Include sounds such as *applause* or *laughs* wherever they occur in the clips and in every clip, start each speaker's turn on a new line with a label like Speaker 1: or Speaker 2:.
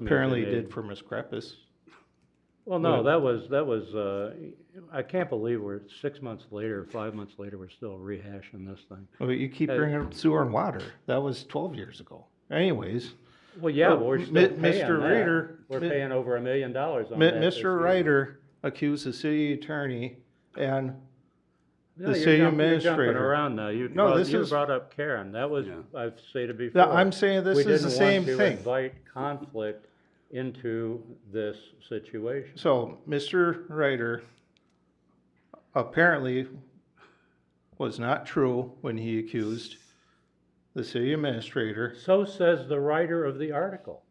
Speaker 1: Apparently
Speaker 2: they-
Speaker 1: did for Ms. Crepus.
Speaker 2: Well, no, that was, that was, uh, I can't believe we're six months later, five months later, we're still rehashing this thing.
Speaker 1: But you keep
Speaker 2: Uh,
Speaker 1: bringing up sewer and water. That was twelve years ago. Anyways,
Speaker 2: Well, yeah,
Speaker 1: Oh,
Speaker 2: but we're
Speaker 1: Mi-
Speaker 2: still paying
Speaker 1: Mr.
Speaker 2: that.
Speaker 1: Reader,
Speaker 2: We're
Speaker 1: Mi-
Speaker 2: paying over a million dollars on
Speaker 1: Mi-
Speaker 2: that this year.
Speaker 1: Mr. Ryder accused the city attorney and the
Speaker 2: No, you're
Speaker 1: city
Speaker 2: jump- You're jumping
Speaker 1: administrator.
Speaker 2: around now. You
Speaker 1: No,
Speaker 2: brought,
Speaker 1: this
Speaker 2: you
Speaker 1: is-
Speaker 2: brought up Karen. That was,
Speaker 3: Yeah.
Speaker 2: I've stated before.
Speaker 1: Th- I'm saying this is the same
Speaker 2: We
Speaker 1: thing.
Speaker 2: didn't want to invite conflict into this situation.
Speaker 1: So, Mr. Ryder apparently was not true when he accused the city administrator.
Speaker 2: So says the writer of the article.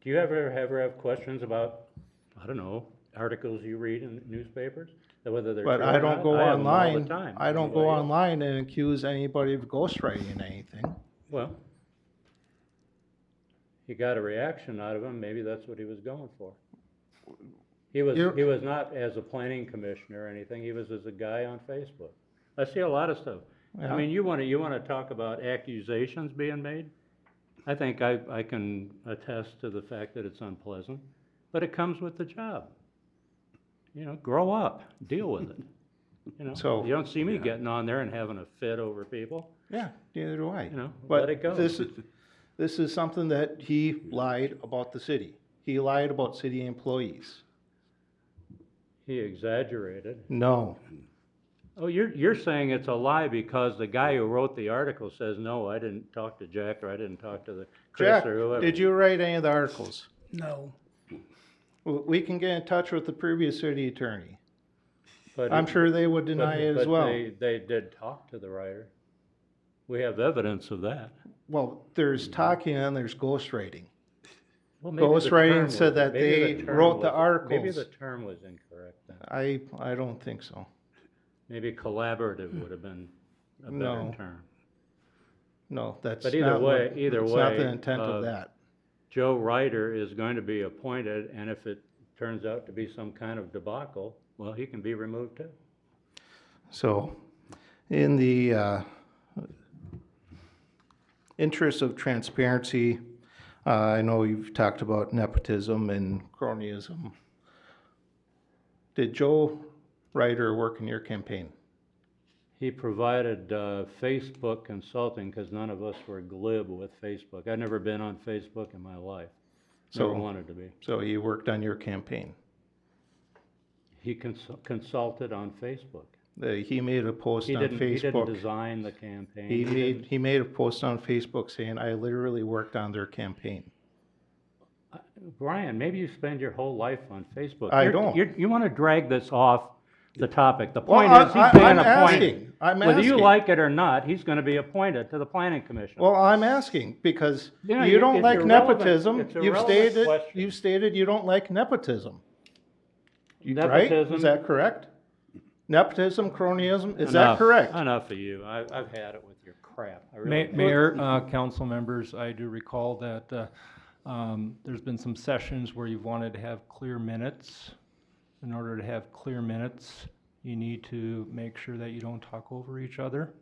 Speaker 2: Do you ever, ever have questions about, I don't know, articles you read in newspapers? That Whether they're true or
Speaker 1: But
Speaker 2: not?
Speaker 1: I don't go
Speaker 2: I have them all the
Speaker 1: online,
Speaker 2: time.
Speaker 1: I don't go
Speaker 2: Anybody-
Speaker 1: online and accuse anybody of ghostwriting anything.
Speaker 2: Well, he got a reaction out of him, maybe that's what he was going for. He was,
Speaker 1: You're-
Speaker 2: he was not as a planning commissioner or anything, he was as a guy on Facebook. I see a lot of stuff. I
Speaker 1: Yeah.
Speaker 2: mean, you wanna, you wanna talk about accusations being made? I think I, I can attest to the fact that it's unpleasant, but it comes with the job. You know, grow up, deal with it, you
Speaker 1: *laughs*
Speaker 2: know?
Speaker 1: So-
Speaker 2: You don't see me
Speaker 3: Yeah.
Speaker 2: getting on there and having a fit over people,
Speaker 1: Yeah, neither do I.
Speaker 2: you know,
Speaker 1: But
Speaker 2: let it go.
Speaker 1: This is, this is something that he lied about the city. He lied about city employees.
Speaker 2: He exaggerated.
Speaker 1: No,
Speaker 2: Oh, you're, you're saying it's a lie because the guy who wrote the article says, no, I didn't talk to Jack, or I didn't talk to the Chris,
Speaker 1: Jack,
Speaker 2: or whoever.
Speaker 1: did you write any of the articles?
Speaker 4: No.
Speaker 1: W- We can get in touch with the previous city attorney.
Speaker 2: But-
Speaker 1: I'm sure they would
Speaker 2: but-
Speaker 1: deny it as
Speaker 2: but
Speaker 1: well.
Speaker 2: they, they did talk to the writer. We have evidence of that.
Speaker 1: Well, there's talking and there's ghostwriting.
Speaker 2: Well, maybe the
Speaker 1: Ghostwriting
Speaker 2: term
Speaker 1: said
Speaker 2: was-
Speaker 1: that
Speaker 2: maybe the
Speaker 1: they
Speaker 2: term
Speaker 1: wrote the
Speaker 2: was- Maybe
Speaker 1: articles.
Speaker 2: the term was incorrect then.
Speaker 1: I, I don't think so.
Speaker 2: Maybe collaborative would have been a
Speaker 1: No.
Speaker 2: better term.
Speaker 1: No, that's
Speaker 2: But either
Speaker 1: not what-
Speaker 2: way- either
Speaker 1: It's not the
Speaker 2: way,
Speaker 1: intent
Speaker 2: uh,
Speaker 1: of that.
Speaker 2: Joe Ryder is going to be appointed, and if it turns out to be some kind of debacle, well, he can be removed too.
Speaker 1: So, in the uh, interest of transparency, uh, I know you've talked about nepotism and cronyism. Did Joe Ryder work in your campaign?
Speaker 2: He provided uh, Facebook consulting because none of us were glib with Facebook. I'd never been on Facebook in my life. Never
Speaker 1: So-
Speaker 2: wanted to be.
Speaker 1: So he worked on your campaign.
Speaker 2: He consul- consulted on Facebook.
Speaker 1: The- He made a post
Speaker 2: He
Speaker 1: on
Speaker 2: didn't, he didn't
Speaker 1: Facebook.
Speaker 2: design the campaign.
Speaker 1: He made,
Speaker 2: didn't-
Speaker 1: he made a post on Facebook saying, I literally worked on their campaign.
Speaker 2: Brian, maybe you spend your whole life on Facebook.
Speaker 1: I
Speaker 2: You're-
Speaker 1: don't.
Speaker 2: you're- You want to drag this off the topic. The
Speaker 1: Well,
Speaker 2: point
Speaker 1: I-
Speaker 2: is,
Speaker 1: I-
Speaker 2: he's being
Speaker 1: I'm
Speaker 2: appointed.
Speaker 1: asking. I'm
Speaker 2: Whether you
Speaker 1: asking.
Speaker 2: like it or not, he's going to be appointed to the planning commission.
Speaker 1: Well, I'm asking because
Speaker 2: You know,
Speaker 1: you
Speaker 2: you-
Speaker 1: don't
Speaker 2: it's
Speaker 1: like
Speaker 2: irrelevant-
Speaker 1: nepotism.
Speaker 2: it's
Speaker 1: You've
Speaker 2: irrelevant
Speaker 1: stated,
Speaker 2: question.
Speaker 1: you've stated you don't like nepotism. You- Right?
Speaker 2: Nepotism-
Speaker 1: Is that correct? Nepotism, cronyism, is that
Speaker 2: Enough-
Speaker 1: correct?
Speaker 2: Enough of you. I, I've had it with your crap. I really
Speaker 4: Ma-
Speaker 2: have.
Speaker 4: Mayor, uh, council members, I do recall that, uh, um, there's been some sessions where you've wanted to have clear minutes. In order to have clear minutes, you need to make sure that you don't talk over each other.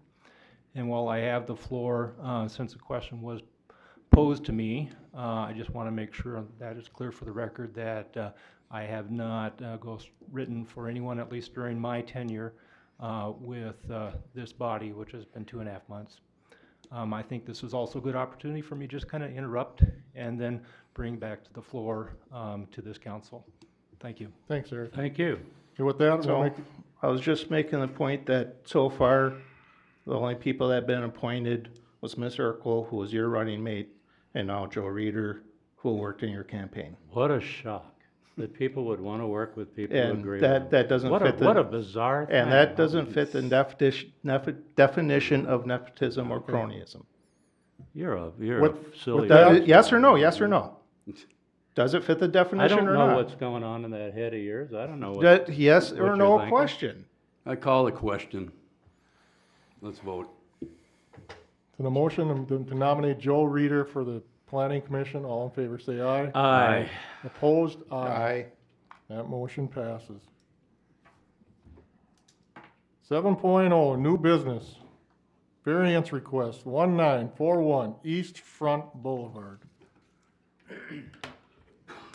Speaker 4: And while I have the floor, uh, since the question was posed to me, uh, I just want to make sure that is clear for the record that, uh, I have not, uh, ghost written for anyone, at least during my tenure, uh, with, uh, this body, which has been two and a half months. Um, I think this is also a good opportunity for me to just kind of interrupt and then bring back to the floor, um, to this council. Thank you.
Speaker 5: Thanks, Eric.
Speaker 2: Thank you.
Speaker 5: And with that, we'll
Speaker 1: So
Speaker 5: make,
Speaker 1: I was just making the point that so far, the only people that have been appointed was Ms. Urkel, who was your running mate, and now Joe Reeder, who worked in your campaign.
Speaker 2: What a shock that people would want to work with people who
Speaker 1: And
Speaker 2: agree
Speaker 1: that,
Speaker 2: with them.
Speaker 1: that doesn't
Speaker 2: What a,
Speaker 1: fit the.
Speaker 2: what a bizarre thing.
Speaker 1: And that doesn't fit the definition, definition of nepotism or cronyism.
Speaker 2: You're a, you're a
Speaker 5: What-
Speaker 2: silly.
Speaker 1: Does
Speaker 2: person.
Speaker 1: it- yes or no, yes or no? Does it fit the
Speaker 2: I
Speaker 1: definition
Speaker 2: don't
Speaker 1: or
Speaker 2: know
Speaker 1: not?
Speaker 2: what's going on in that head of yours. I don't know what.
Speaker 1: That- yes or
Speaker 2: you're
Speaker 1: no
Speaker 2: thinking.
Speaker 1: question.
Speaker 3: I call the question. Let's vote.
Speaker 5: an motion to to nominate Joe Reeder for the planning commission. All in favor, say aye.
Speaker 2: Aye.
Speaker 5: Opposed, aye. That motion passes. Seven oh, new business. Variance request, one nine four one East Front Boulevard.